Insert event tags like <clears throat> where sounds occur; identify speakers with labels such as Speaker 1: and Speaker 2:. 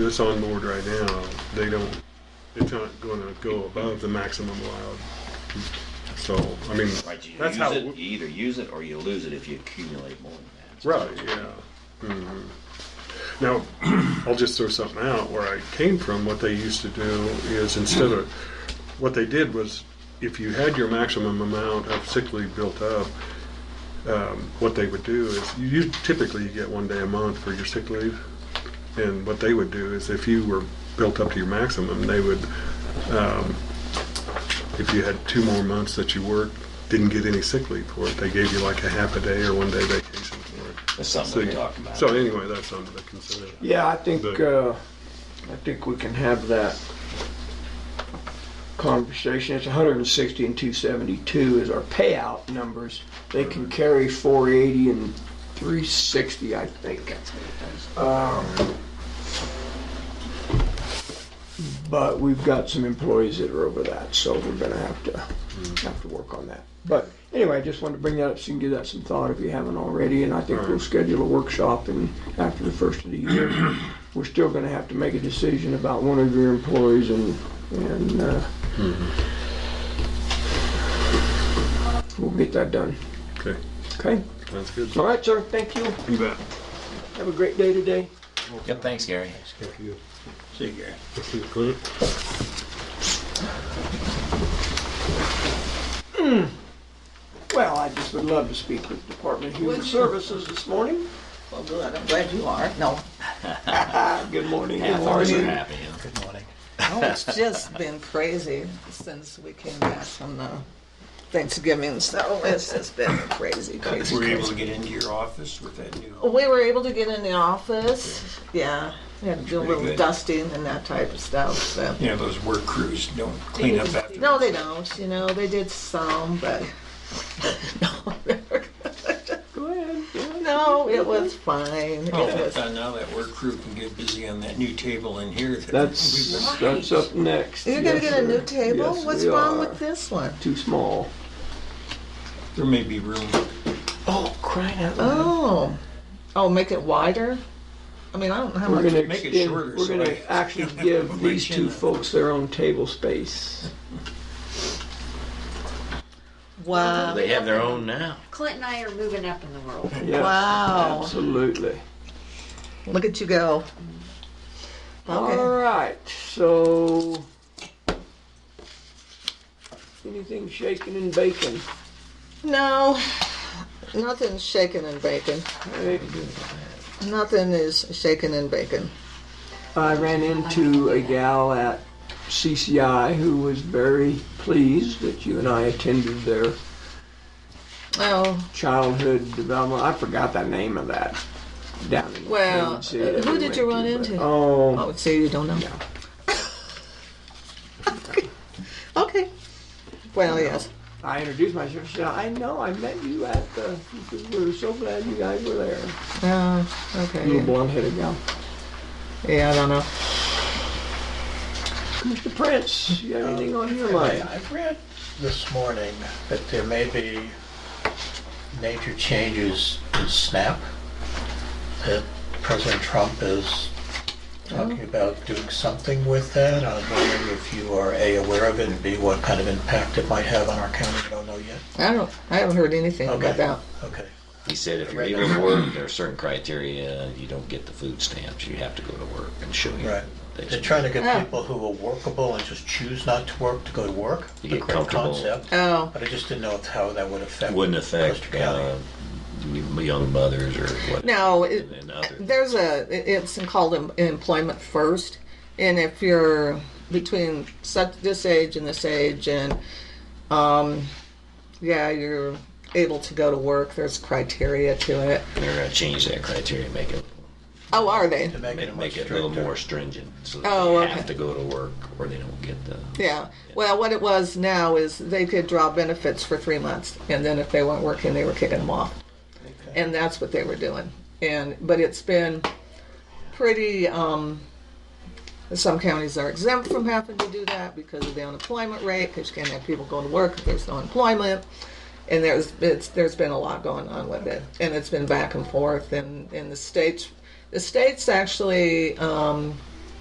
Speaker 1: that's on board right now, they don't, it's not gonna go above the maximum allowed. So, I mean,
Speaker 2: Right, you
Speaker 1: that's
Speaker 2: use
Speaker 1: how,
Speaker 2: it,
Speaker 1: we-
Speaker 2: you either use it or you lose it if you accumulate more than that.
Speaker 1: right, yeah. Mhm. Now, <clears throat> I'll just throw something out where I came from, what they used to do is instead of, what they did was, if you had your maximum amount of sick leave built up, um, what they would do is, you you typically you get one day a month for your sick leave. And what they would do is if you were built up to your maximum, they would, um, if you had two more months that you worked, didn't get any sick leave for it, they gave you like a half a day or one day vacation for it.
Speaker 2: That's something we talked about.
Speaker 1: So anyway, that's under the consideration.
Speaker 3: Yeah, I think,
Speaker 1: But-
Speaker 3: uh, I think we can have that conversation. It's 160 and 272 is our payout numbers. They can carry 480 and 360, I think. Um, But we've got some employees that are over that, so we're gonna have to,
Speaker 4: Mm-hmm.
Speaker 3: have to work on that. But anyway, I just wanted to bring that up so you can give that some thought if you haven't already, and I think we'll schedule a workshop and after the first of the year.
Speaker 4: <clears throat>
Speaker 3: We're still gonna have to make a decision about one of your employees and, and, uh,
Speaker 4: Mm-hmm.
Speaker 3: we'll get that done,
Speaker 1: Okay,
Speaker 3: okay?
Speaker 1: sounds good.
Speaker 2: Oh.
Speaker 3: All right, sir, thank you.
Speaker 1: You bet.
Speaker 3: Have a great day today.
Speaker 2: Yep, thanks, Gary.
Speaker 1: Thank you.
Speaker 3: See you, Gary.
Speaker 1: Thank you, Clint.
Speaker 3: Well, I just would love to speak with Department of Human
Speaker 4: Would you?
Speaker 3: Services this morning.
Speaker 4: Well, good, I'm glad you are. No,
Speaker 3: Good morning.
Speaker 4: Half
Speaker 3: How
Speaker 4: hour
Speaker 3: are
Speaker 4: is
Speaker 3: you?
Speaker 2: Happy, huh?
Speaker 4: oh, it's just been crazy since we came back from the Thanksgiving, so it's just been crazy, crazy,
Speaker 5: Were you able
Speaker 4: crazy.
Speaker 5: to get into your office with that new?
Speaker 4: We were able to get in the office, yeah, we had to do a
Speaker 5: Pretty
Speaker 4: little
Speaker 5: good.
Speaker 4: dusting and that type of stuff, so.
Speaker 5: You know, those work crews don't clean up after.
Speaker 4: No, they don't, you know, they did some, but, <laughs> no, they were good.
Speaker 3: Go ahead.
Speaker 4: no, it was fine, it
Speaker 5: Oh,
Speaker 4: was,
Speaker 5: I now that work crew can get busy on that new table in here. that <laughs> we've been-
Speaker 3: That's, that's up next.
Speaker 4: you're
Speaker 3: Yes,
Speaker 4: gonna get a new
Speaker 3: sir.
Speaker 4: table?
Speaker 3: Yes,
Speaker 4: What's
Speaker 3: we
Speaker 4: wrong
Speaker 3: are.
Speaker 4: with this one?
Speaker 3: Too small.
Speaker 5: There may be room.
Speaker 3: Oh, crying out loud.
Speaker 4: Oh, oh, make it wider? I mean, I don't know how
Speaker 3: We're
Speaker 4: much.
Speaker 3: gonna
Speaker 5: Make it
Speaker 3: extend,
Speaker 5: shorter
Speaker 3: we're
Speaker 5: so
Speaker 3: gonna
Speaker 5: I-
Speaker 3: <laughs>
Speaker 5: <laughs>
Speaker 3: actually give
Speaker 5: Put my
Speaker 3: these
Speaker 5: chin
Speaker 3: two
Speaker 5: up.
Speaker 3: folks their own table space.
Speaker 4: Wow.
Speaker 2: They have their own now.
Speaker 6: Clint and I are moving up in the world.
Speaker 3: Yes,
Speaker 4: Wow.
Speaker 3: Absolutely.
Speaker 4: Look at you go.
Speaker 3: All right, so. Anything shaking and baking?
Speaker 4: No, nothing's shaken and bacon.
Speaker 3: Hey,
Speaker 4: Nothing is shaken and bacon.
Speaker 3: I ran into a gal at CCI who was very pleased that you and I attended their
Speaker 4: Oh,
Speaker 3: childhood development. I forgot the name of that. Down in
Speaker 4: Well, uh,
Speaker 3: Kansas City that
Speaker 4: who
Speaker 3: we
Speaker 4: did
Speaker 3: went
Speaker 4: you run
Speaker 3: to, but-
Speaker 4: into? I
Speaker 3: Oh,
Speaker 4: would say you don't know. <laughs> okay. Well, yes.
Speaker 3: I introduced myself. She said, "I know. I met you at the. We were so glad you guys were there."
Speaker 4: Uh, okay.
Speaker 3: Little blonde-headed gal,
Speaker 4: Yeah, I don't know.
Speaker 3: Mr. Prince. You have anything on your mind?
Speaker 7: I read this morning that there may be major changes in SNAP, that President Trump is talking about doing something with that. I was wondering if you are A, aware of it, and B, what kind of impact it might have on our county, I don't know yet.
Speaker 4: I don't. I haven't heard anything
Speaker 7: Okay.
Speaker 4: about that.
Speaker 7: Okay.
Speaker 2: He said if you're able to work, there are certain criteria. You don't get the food stamps. You have to go to work and show you.
Speaker 7: Right.
Speaker 2: that
Speaker 7: They're
Speaker 2: you-
Speaker 7: trying to
Speaker 4: Yeah.
Speaker 7: get people who are workable and just choose not to work to go to work.
Speaker 2: You get
Speaker 7: Great
Speaker 2: comfortable.
Speaker 7: concept,
Speaker 4: Oh,
Speaker 7: But I just didn't know if how that would affect.
Speaker 2: Wouldn't affect
Speaker 7: Custer County.
Speaker 2: uh, young mothers or what.
Speaker 4: No, it,
Speaker 2: And then others.
Speaker 4: there's a, it's called em- employment first. And if you're between such, this age and this age and, um, yeah, you're able to go to work, there's criteria to it.
Speaker 2: They're going to change that criteria and make it
Speaker 4: Oh, are they?
Speaker 7: To make it
Speaker 2: make,
Speaker 7: a much
Speaker 2: make it a little
Speaker 7: stricter-
Speaker 2: more stringent. So that
Speaker 4: Oh,
Speaker 2: they
Speaker 4: okay.
Speaker 2: have to go to work or they don't get the.
Speaker 4: Yeah. Well, what it was now is they could draw benefits for three months, and then if they weren't working, they were kicking them off, and that's what they were doing. And but it's been pretty. Um, some counties are exempt from having to do that because of the unemployment rate, because you can't have people going to work if there's no employment. And there's it's, there's been a lot going on with it, and it's been back and forth. And in the states, the states actually um,